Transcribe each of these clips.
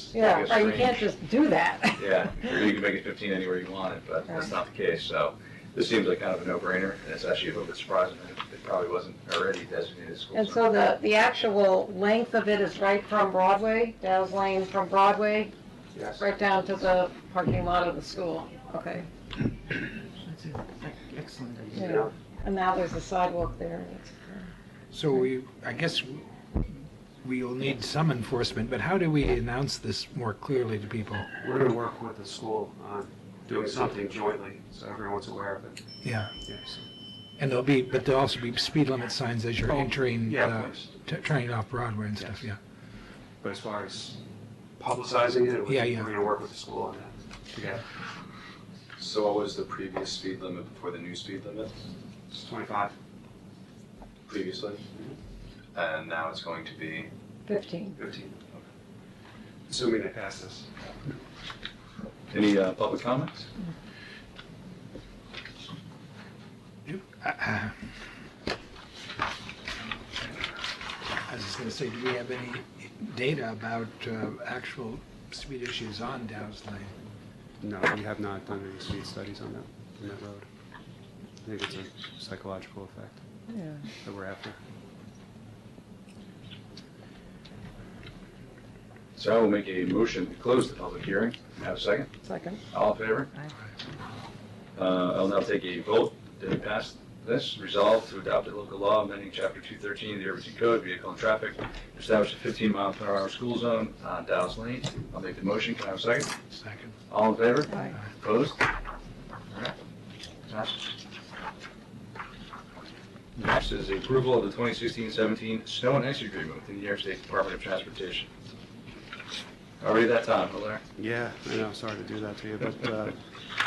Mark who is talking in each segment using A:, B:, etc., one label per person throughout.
A: just make
B: Yeah,
A: a
B: right, you can't
A: strange.
B: just do that.
A: Yeah, or you can make it fifteen anywhere you want it, but that's not the case, so this seems like kind of a no-brainer, and it's actually a little bit surprising that it probably wasn't already designated school.
B: And
A: zone.
B: so the, the actual length of it is right from Broadway, Dow's Lane from Broadway,
A: Yes.
B: right down to the parking lot of the school, okay?
C: That's an ec- excellent idea.
B: Yeah. And now there's a sidewalk there.
D: So we, I guess we will need some enforcement, but how do we announce this more clearly to people?
E: We're gonna work with the school on doing something jointly, so everyone's aware of it.
D: Yeah,
E: Yes.
D: and there'll be, but there'll also be speed limit signs as you're
E: Oh,
D: entering,
E: Yeah,
D: uh,
E: please.
D: t- turning off Broadway and stuff, yeah.
E: Yes. But as far as publicizing it,
D: Yeah,
E: we're
D: yeah.
E: gonna work with the school on that. together.
F: So what was the previous speed limit before the new speed limit
E: It's twenty-five.
F: previously? And now it's going to be
B: Fifteen.
F: fifteen.
E: Assuming they pass this.
A: Any uh, public comments?
D: Uh, I was just gonna say, do we have any data about uh, actual speed issues on Dow's Lane?
E: No, we have not done any speed studies on that, on that road. I think it's a psychological effect that we're after.
A: So I will make a motion to close the public hearing. Have a second?
B: Second.
A: All in favor? Uh, I'll now take a vote to pass this. Resolve to adopt a local law amending Chapter 213 of the Irvington Code, Vehicle and Traffic, to establish a 15 mile per hour school zone on Dow's Lane. I'll make the motion. Can I have a second?
D: Second.
A: All in favor?
B: Aye.
A: Opposed? All right. Passes. Next is the approval of the 2016-17 snow and ice agreement with the New York State Department of Transportation. Already that time, Hilaire.
E: Yeah, I know, sorry to do that to you, but, uh,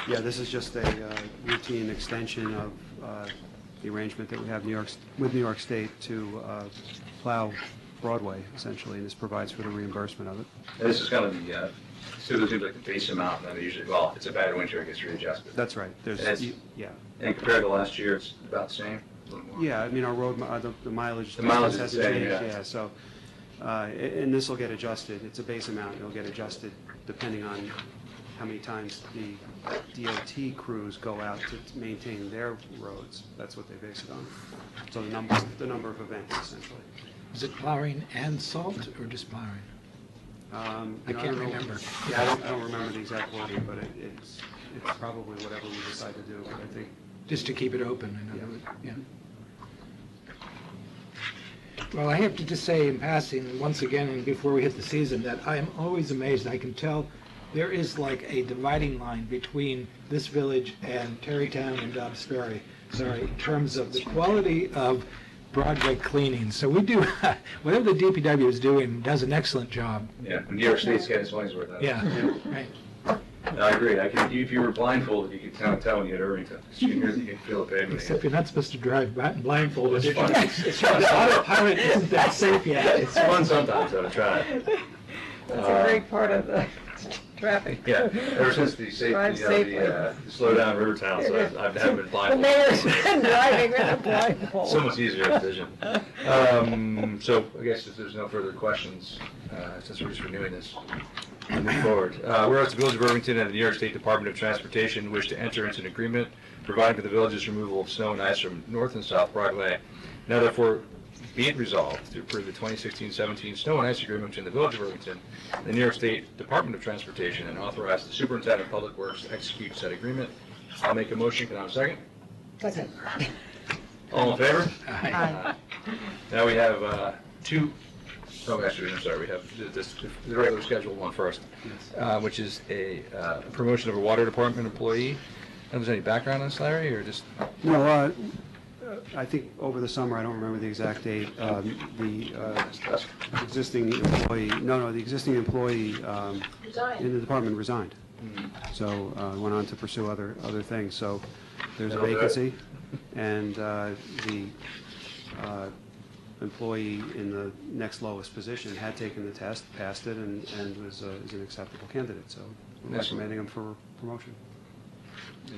E: yeah, this is just a uh, routine extension of uh, the arrangement that we have New York, with New York State to uh, plow Broadway, essentially, and this provides for the reimbursement of it.
A: And This is kind of the, uh, so there's like the base amount, and then they usually, well, it's a bad winter, it gets readjusted.
E: That's right, there's,
A: That's-
E: yeah,
A: And compared to last year, it's about the same, a little more.
E: yeah, I mean, our road, mi- uh, the the mileage.
A: The mileage is
E: hasn't
A: the same,
E: changed,
A: yeah.
E: Yeah, so, uh, a- and this will get adjusted, it's a base amount, it'll get adjusted depending on how many times the DOT crews go out to maintain their roads, that's what they base it on. So the number, the number of events essentially.
D: Is it plowing and salt or just plowing?
E: Um,
D: I
E: you know,
D: can't
E: don't know-
D: remember.
E: Yeah, I don't, I don't remember the exact wording, but it- it's, it's probably whatever we decide to do, but I think
D: Just to keep it open, in other words, yeah. Well, I have to just say in passing, once again, and before we hit the season, that I am always amazed, I can tell there is like a dividing line between this village and Terrytown and Dobbs Ferry, sorry, in terms of the quality of Broadway cleaning. So we do, whatever the DPW is doing, does an excellent job,
A: Yeah, New York State's getting its money's worth out of it.
D: yeah, right.
A: No, I agree, I can, if you were blindfolded, you could kind of tell when you hit Irvington, 'cause you can hear- you can feel the pavement.
D: Except you're not supposed to drive bi- blindfolded.
A: It's fun. It's fun.
D: The autopilot isn't that safe yet.
A: It's fun sometimes, though, to try it. Uh,
B: That's a great part of the traffic.
A: Yeah, ever since the safety,
B: Drive
A: you know,
B: safely.
A: the, uh, slow down river towns, I've, I've never been
B: The
A: blindfolded.
B: mayor's been driving with a blindfold.
A: So much easier to vision. Um, so I guess if there's no further questions, uh, since we're just renewing this, I'll move forward. Uh, whereas the Village of Irvington and the New York State Department of Transportation wish to enter into an agreement providing for the village's removal of snow and ice from North and South Broadway. Now therefore, be it resolved to approve the 2016-17 snow and ice agreement between the Village of Irvington and the New York State Department of Transportation and authorize the Superintendent of Public Works to execute said agreement. I'll make a motion. Can I have a second?
B: Second.
A: All in favor?
C: Aye.
A: Now we have uh, two, oh, actually, I'm sorry, we have th- this, the regular scheduled one first, uh, which is a uh, promotion of a water department employee. If there's any background on this, Larry, or just,
E: No, uh, uh, I think over the summer, I don't remember the exact date, um, the uh, existing employee, no, no, the existing employee um, in the department resigned. So uh, went on to pursue other, other things. So there's a
A: That'll do it.
E: vacancy, and uh, the uh, employee in the next lowest position had taken the test, passed it, and and was uh, is an acceptable candidate. So we're
A: Excellent.
E: recommending him for promotion.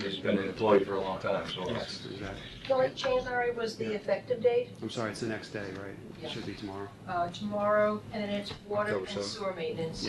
A: he's been an employee for a long time, so.
E: Exactly.
G: The only change, Larry, was the effective date,
E: I'm sorry, it's the next day, right? It should be tomorrow.
G: uh, tomorrow, and then it's water
A: October
G: and
A: seventh.
G: sewer maintenance.